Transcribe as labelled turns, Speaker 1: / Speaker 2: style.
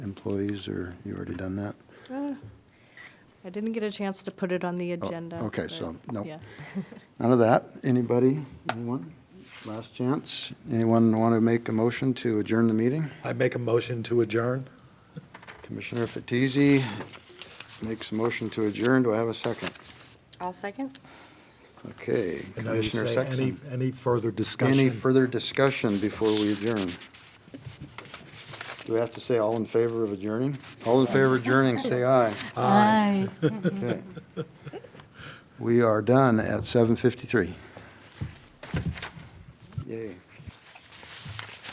Speaker 1: employees, or you already done that?
Speaker 2: Uh, I didn't get a chance to put it on the
Speaker 1: Oh,
Speaker 2: agenda.
Speaker 1: okay,
Speaker 2: but
Speaker 1: so, no.
Speaker 2: yeah.
Speaker 1: None of that. Anybody? Anyone? Last chance. Anyone want to make a motion to adjourn the meeting?
Speaker 3: I make a motion to adjourn.
Speaker 1: Commissioner Fatisi makes a motion to adjourn. Do I have a second?
Speaker 4: I'll second.
Speaker 1: Okay.
Speaker 3: And I would
Speaker 1: Commissioner
Speaker 3: say any-
Speaker 1: Sexton.
Speaker 3: Any further discussion?
Speaker 1: Any further discussion before we adjourn? Do we have to say all in favor of adjourning? All in favor of adjourning, say aye.
Speaker 5: Aye.
Speaker 1: Okay. We are done at 7:53. Yay.